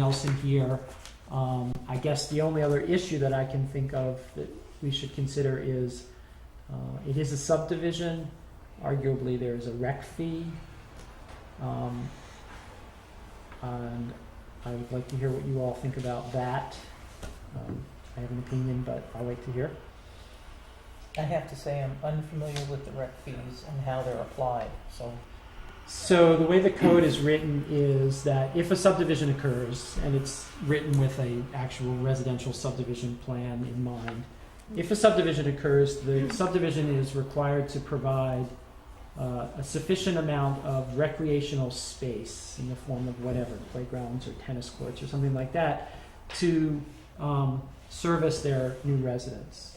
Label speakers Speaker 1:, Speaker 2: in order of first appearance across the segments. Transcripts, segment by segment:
Speaker 1: else in here. Um, I guess the only other issue that I can think of that we should consider is, uh, it is a subdivision, arguably there is a rec fee. Um, and I would like to hear what you all think about that. Um, I have an opinion, but I'll wait to hear.
Speaker 2: I have to say, I'm unfamiliar with the rec fees and how they're applied, so.
Speaker 1: So the way the code is written is that if a subdivision occurs, and it's written with a actual residential subdivision plan in mind, if a subdivision occurs, the subdivision is required to provide uh, a sufficient amount of recreational space in the form of whatever, playgrounds or tennis courts or something like that, to um, service their new residents.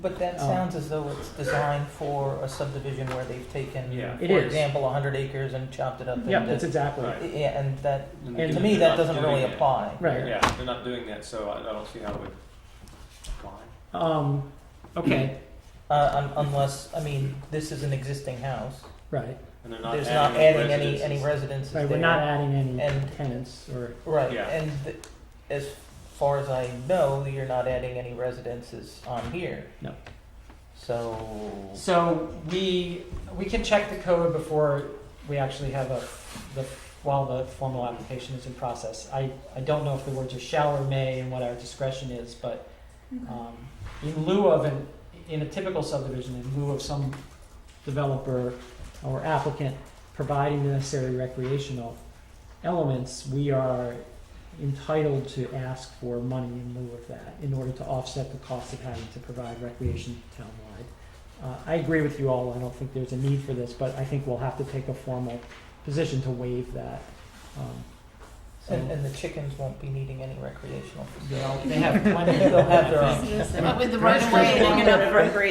Speaker 2: But that
Speaker 1: Oh.
Speaker 2: sounds as though it's designed for a subdivision where they've taken,
Speaker 3: Yeah.
Speaker 1: It
Speaker 2: for
Speaker 1: is.
Speaker 2: example, hundred acres and chopped it up into.
Speaker 1: Yep, that's exactly it.
Speaker 3: Right.
Speaker 2: Yeah, and that,
Speaker 3: And
Speaker 1: And-
Speaker 2: to
Speaker 3: they're
Speaker 2: me,
Speaker 3: not
Speaker 2: that doesn't
Speaker 3: doing
Speaker 2: really
Speaker 3: that.
Speaker 2: apply.
Speaker 1: Right.
Speaker 3: Yeah, they're not doing that, so I I don't see how it would apply.
Speaker 1: Um, okay,
Speaker 2: Uh, un- unless, I mean, this is an existing house,
Speaker 1: right.
Speaker 3: And they're not
Speaker 2: there's not adding
Speaker 3: adding
Speaker 2: any, any
Speaker 3: residences.
Speaker 2: residences there.
Speaker 1: Right, we're not adding any
Speaker 2: And-
Speaker 1: tenants or
Speaker 2: Right,
Speaker 3: Yeah.
Speaker 2: and th- as far as I know, you're not adding any residences on here.
Speaker 1: No.
Speaker 2: So,
Speaker 4: So we, we can check the code before we actually have a, the, while the formal application is in process. I, I don't know if the words are shall or may and what our discretion is, but, um, in lieu of an, in a typical subdivision, in lieu of some
Speaker 1: developer or applicant providing the necessary recreational elements, we are entitled to ask for money in lieu of that in order to offset the cost of having to provide recreation townwide. Uh, I agree with you all, I don't think there's a need for this, but I think we'll have to take a formal position to waive that. Um, so-
Speaker 2: and, and the chickens won't be needing any recreational.
Speaker 4: They'll, they have plenty.
Speaker 2: They'll have their own.
Speaker 5: But with the right of way along the,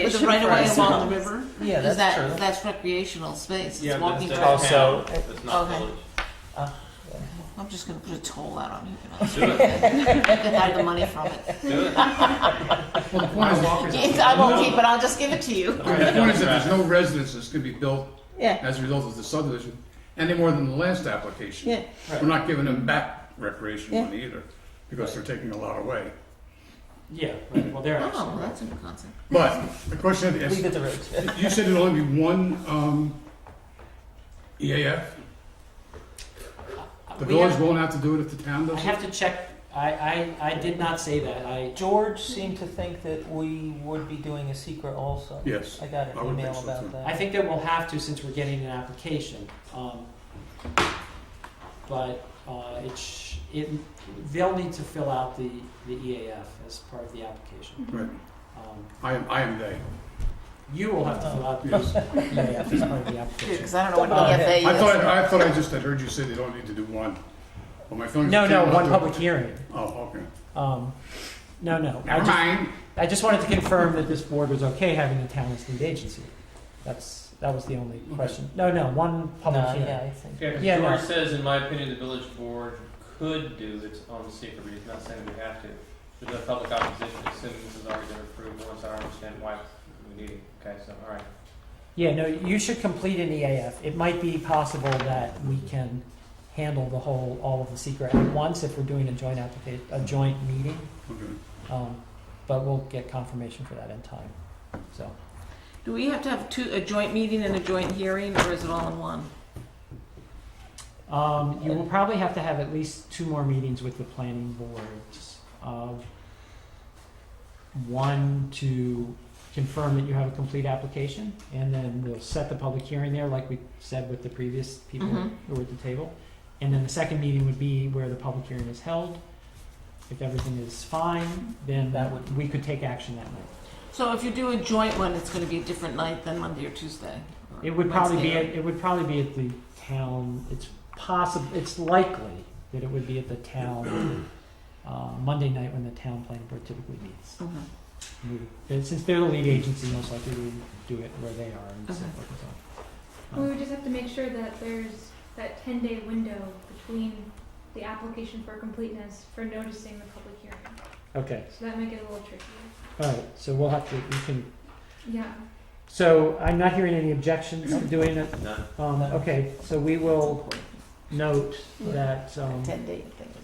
Speaker 5: with the right of way along the river,
Speaker 2: Yeah, that's
Speaker 5: is that,
Speaker 2: true.
Speaker 5: that's recreational space,
Speaker 3: Yeah,
Speaker 5: it's
Speaker 3: but
Speaker 5: walking
Speaker 3: that's
Speaker 5: trails.
Speaker 3: town, That's not
Speaker 5: Okay.
Speaker 3: village.
Speaker 5: I'm just gonna put a toll out on you, you know, get out the money from it.
Speaker 3: Do it.
Speaker 6: Well, the point is, all right,
Speaker 5: I won't keep it, I'll just give it to you.
Speaker 6: the point is that there's no residences can be built
Speaker 5: Yeah,
Speaker 6: as a result of the subdivision, any more than the last application.
Speaker 5: yeah,
Speaker 6: We're not giving them back recreation
Speaker 5: Yeah.
Speaker 6: money either, because they're taking a lot away.
Speaker 4: Yeah, right, well, they're actually.
Speaker 5: oh, that's a new concept.
Speaker 6: But the question
Speaker 2: Leave
Speaker 6: is,
Speaker 2: it to Rich.
Speaker 6: you said it'd only be one, um, EAF? The
Speaker 4: We have-
Speaker 6: village won't have to do it if the town
Speaker 4: I
Speaker 6: does it?
Speaker 4: have to check, I, I, I did not say that, I,
Speaker 2: George seemed to think that we would be doing a secret also.
Speaker 6: Yes.
Speaker 2: I got an
Speaker 6: I would
Speaker 2: email
Speaker 6: think so,
Speaker 2: about
Speaker 6: too.
Speaker 2: that.
Speaker 4: I think that we'll have to since we're getting an application. Um, but uh, it sh- it, they'll need to fill out the, the EAF as part of the application.
Speaker 6: Right,
Speaker 4: Um,
Speaker 6: I am, I am they.
Speaker 4: you will have to fill out the
Speaker 6: Yes.
Speaker 4: EAF as part of the
Speaker 5: Yeah,
Speaker 4: application.
Speaker 5: cause I don't know what
Speaker 2: Don't bother.
Speaker 5: EFA
Speaker 6: I
Speaker 5: is.
Speaker 6: thought, I thought I just had heard you say they don't need to do one. Well, my feelings.
Speaker 1: No, no,
Speaker 6: We'll
Speaker 1: one
Speaker 6: do-
Speaker 1: public hearing.
Speaker 6: Oh, okay.
Speaker 1: Um, No, no. I
Speaker 6: Never
Speaker 1: just-
Speaker 6: mind.
Speaker 1: I just wanted to confirm that this board was okay having the town as lead agency. That's, that was the only question. No, no, one public
Speaker 2: Mm-hmm. No,
Speaker 1: hearing.
Speaker 2: yeah, I think.
Speaker 3: Yeah, 'cause
Speaker 1: Yeah, no.
Speaker 3: George says, in my opinion, the village board could do its own secret reading, not saying we have to. There's no public opposition, assuming this is already been approved, once I understand why we need it, okay, so, all right.
Speaker 1: Yeah, no, you should complete an EAF. It might be possible that we can handle the whole, all of the secret at once if we're doing a joint applica, a joint meeting.
Speaker 6: Okay.
Speaker 1: Um, But we'll get confirmation for that in time, so.
Speaker 5: Do we have to have two, a joint meeting and a joint hearing, or is it all in one?
Speaker 1: Um, you will probably have to have at least two more meetings with the planning boards. Uh, one to confirm that you have a complete application, and then we'll set the public hearing there, like we said with the previous people
Speaker 5: Mhm.
Speaker 1: who were at the table. And then the second meeting would be where the public hearing is held. If everything is fine, then
Speaker 2: That would-
Speaker 1: we could take action that night.
Speaker 5: So if you do a joint one, it's gonna be a different night than Monday or Tuesday? or
Speaker 1: It would probably be,
Speaker 5: Wednesday or-
Speaker 1: at- it would probably be at the town, it's possible, it's likely that it would be at the town, uh, Monday night when the town planning board typically meets.
Speaker 5: Mhm.
Speaker 1: We- Mm. and Since they're the lead agency, most likely we do it where they are and so
Speaker 5: Okay.
Speaker 1: forth and so on. Um,
Speaker 7: We would just have to make sure that there's that ten day window between the application for completeness for noticing the public hearing.
Speaker 1: Okay,
Speaker 7: So that might get a little tricky.
Speaker 1: all right, so we'll have to, we can,
Speaker 7: Yeah.
Speaker 1: so I'm not hearing any objections to doing it.
Speaker 3: None?
Speaker 1: Um, okay, so we will note that, um,
Speaker 5: Ten day thing.